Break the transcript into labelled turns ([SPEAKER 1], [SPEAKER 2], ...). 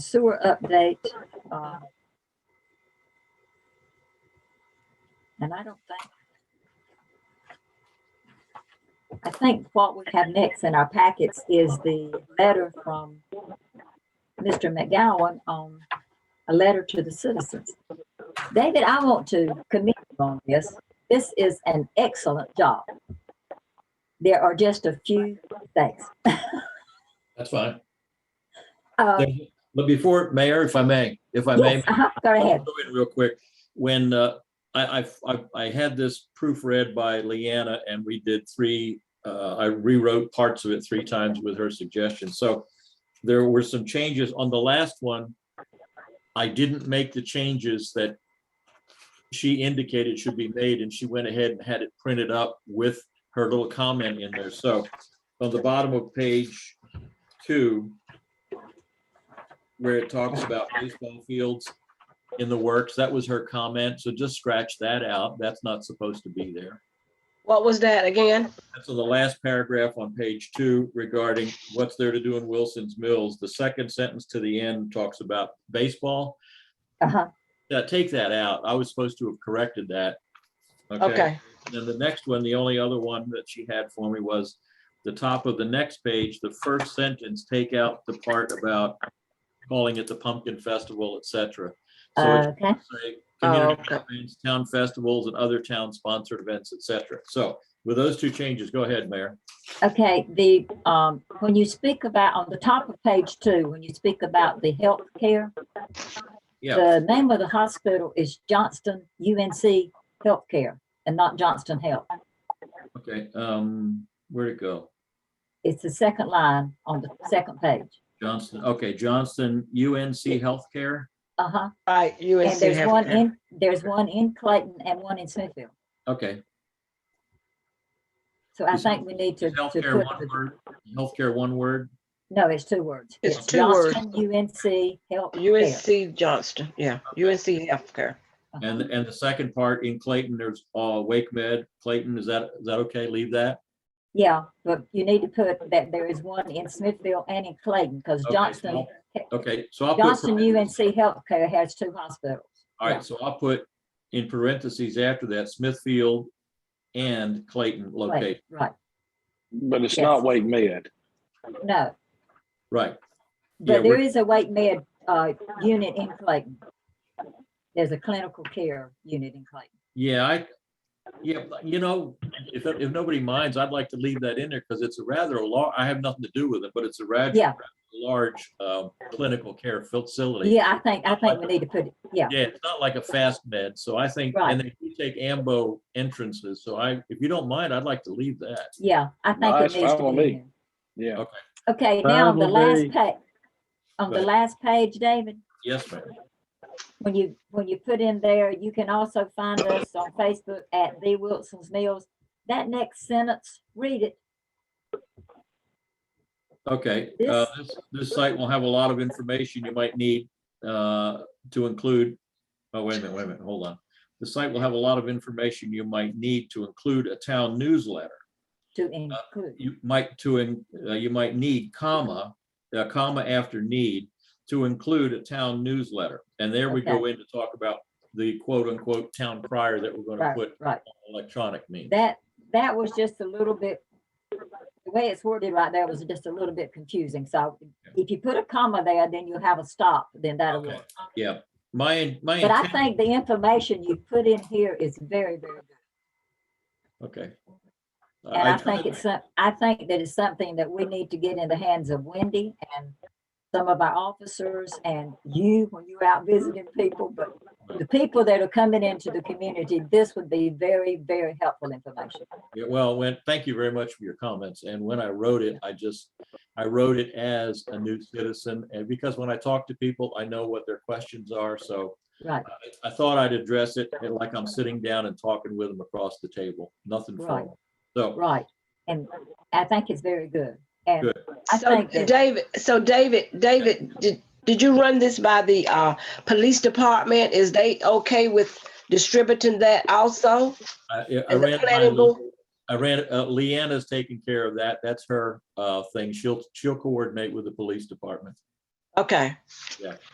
[SPEAKER 1] sewer update. uh, And I don't think. I think what we have next in our packets is the letter from Mr. McGowan on a letter to the citizens. David, I want to commend you on this. This is an excellent job. There are just a few things.
[SPEAKER 2] That's fine.
[SPEAKER 1] Uh,
[SPEAKER 2] There's- But before, Mayor, if I may, if I may,
[SPEAKER 1] yes, uh-huh, Go
[SPEAKER 2] I'll
[SPEAKER 1] ahead.
[SPEAKER 2] go in real quick. When uh, I, I- I, I had this proofread by Leanna and we did three, uh, I rewrote parts of it three times with her suggestion. So there were some changes on the last one. I didn't make the changes that she indicated should be made and she went ahead and had it printed up with her little comment in there. So on the bottom of page two, where it talks about baseball fields, in the works. That was her comment. So just scratch that out. That's not supposed to be there.
[SPEAKER 3] What was that again?
[SPEAKER 2] So the last paragraph on page two regarding what's there to do in Wilson's Mills, the second sentence to the end talks about baseball.
[SPEAKER 1] Uh-huh.
[SPEAKER 2] Yeah, take that out. I was supposed to have corrected that.
[SPEAKER 3] Okay,
[SPEAKER 2] Then the next one, the only other one that she had for me was the top of the next page, the first sentence, take out the part about calling it the Pumpkin Festival, et cetera. So it's
[SPEAKER 1] Okay,
[SPEAKER 2] say,
[SPEAKER 3] Oh,
[SPEAKER 2] community
[SPEAKER 3] okay.
[SPEAKER 2] events, town festivals and other town-sponsored events, et cetera. So with those two changes, go ahead, Mayor.
[SPEAKER 1] okay, the, um, when you speak about, on the top of page two, when you speak about the health care,
[SPEAKER 2] Yeah,
[SPEAKER 1] the name of the hospital is Johnston UNC Healthcare and not Johnston Health.
[SPEAKER 2] okay, um, where'd it go?
[SPEAKER 1] It's the second line on the second page.
[SPEAKER 2] Johnston, okay, Johnston, UNC Healthcare.
[SPEAKER 1] Uh-huh.
[SPEAKER 3] right,
[SPEAKER 1] And
[SPEAKER 3] UNC.
[SPEAKER 1] there's one
[SPEAKER 3] Healthcare.
[SPEAKER 1] in, there's one in Clayton and one in Smithfield.
[SPEAKER 2] Okay,
[SPEAKER 1] So I
[SPEAKER 2] Is-
[SPEAKER 1] think we need to.
[SPEAKER 2] is
[SPEAKER 1] to
[SPEAKER 2] healthcare
[SPEAKER 1] put
[SPEAKER 2] one
[SPEAKER 1] the-
[SPEAKER 2] word, healthcare one word.
[SPEAKER 1] No, it's two words.
[SPEAKER 3] It's two words.
[SPEAKER 1] Johnston UNC Healthcare.
[SPEAKER 3] UNC Johnston, yeah, UNC Healthcare.
[SPEAKER 1] Uh-huh.
[SPEAKER 2] And, and the second part in Clayton, there's, uh, Wake Med, Clayton, is that, is that okay? Leave that?
[SPEAKER 1] Yeah, but you need to put that there is one in Smithfield and in Clayton because
[SPEAKER 2] Okay,
[SPEAKER 1] Johnston,
[SPEAKER 2] Okay, so I'll put.
[SPEAKER 1] Johnston
[SPEAKER 2] parentheses.
[SPEAKER 1] UNC Healthcare has two hospitals.
[SPEAKER 2] All
[SPEAKER 1] Yeah.
[SPEAKER 2] right, so I'll put in parentheses after that Smithfield and Clayton
[SPEAKER 1] Right,
[SPEAKER 2] location.
[SPEAKER 1] right,
[SPEAKER 4] But it's
[SPEAKER 1] Yes.
[SPEAKER 4] not Wake Med.
[SPEAKER 1] no,
[SPEAKER 2] Right, Yeah,
[SPEAKER 1] but there
[SPEAKER 2] we're-
[SPEAKER 1] is a Wake Med uh, unit in Clayton. There's a clinical care unit in Clayton.
[SPEAKER 2] yeah, I, yeah, but, you know, if, if nobody minds, I'd like to leave that in there because it's a rather a lar, I have nothing to do with it, but it's a rather
[SPEAKER 1] Yeah.
[SPEAKER 2] large um, clinical care facility.
[SPEAKER 1] Yeah, I think, I think we need to put, it. yeah,
[SPEAKER 2] Yeah, it's not like a fast med, so I think,
[SPEAKER 1] Right.
[SPEAKER 2] and they do take AMBO entrances, so I, if you don't mind, I'd like to leave that.
[SPEAKER 1] yeah, I
[SPEAKER 4] No,
[SPEAKER 1] think
[SPEAKER 4] that's
[SPEAKER 1] it needs to
[SPEAKER 4] fine with
[SPEAKER 1] be in
[SPEAKER 4] me.
[SPEAKER 1] there.
[SPEAKER 4] Yeah.
[SPEAKER 1] Okay, now on the last
[SPEAKER 4] Probably-
[SPEAKER 1] page, on the
[SPEAKER 2] Right.
[SPEAKER 1] last page, David,
[SPEAKER 2] Yes, ma'am.
[SPEAKER 1] when you, when you put in there, you can also find us on Facebook at The Wilson's Mills. That next sentence, read it.
[SPEAKER 2] Okay, uh, this, this site will have a lot of information you might need, uh, to include. Oh, wait a minute, wait a minute, hold on. The site will have a lot of information you might need to include a town newsletter.
[SPEAKER 1] to include.
[SPEAKER 2] You might to, in- uh, you might need comma, uh, comma after need to include a town newsletter. And there we go in to talk about the quote unquote town crier that we're gonna
[SPEAKER 1] Right,
[SPEAKER 2] put
[SPEAKER 1] right.
[SPEAKER 2] electronic means.
[SPEAKER 1] That, that was just a little bit, the way it's worded right there was just a little bit confusing. So if you put a comma there, then you have a stop, then that'll
[SPEAKER 2] Okay.
[SPEAKER 1] work.
[SPEAKER 2] Yeah, my, my.
[SPEAKER 1] But I
[SPEAKER 2] intent-
[SPEAKER 1] think the information you put in here is very, very good.
[SPEAKER 2] Okay.
[SPEAKER 1] And I
[SPEAKER 2] tried
[SPEAKER 1] think
[SPEAKER 2] to-
[SPEAKER 1] it's, some- I think that it's something that we need to get in the hands of Wendy and some of our officers and you when you're out visiting people, but the people that are coming into the community, this would be very, very helpful information.
[SPEAKER 2] Yeah, well, when, thank you very much for your comments. And when I wrote it, I just, I wrote it as a new citizen. And because when I talk to people, I know what their questions are. So
[SPEAKER 1] Right,
[SPEAKER 2] I- I thought I'd address it like I'm sitting down and talking with them across the table, nothing
[SPEAKER 1] Right.
[SPEAKER 2] formal. So,
[SPEAKER 1] right. And I think it's very good. And
[SPEAKER 2] Good.
[SPEAKER 1] I
[SPEAKER 3] So
[SPEAKER 1] think that
[SPEAKER 3] David, so David, David, did, did you run this by the, uh, police department? Is they okay with distributing that also?
[SPEAKER 2] I, I
[SPEAKER 3] Is
[SPEAKER 2] ran,
[SPEAKER 3] the
[SPEAKER 2] it by
[SPEAKER 3] planning
[SPEAKER 2] Lou-
[SPEAKER 3] board?
[SPEAKER 2] I ran, uh, Leanna's taking care of that. That's her, uh, thing. She'll, she'll coordinate with the police department.
[SPEAKER 3] Okay.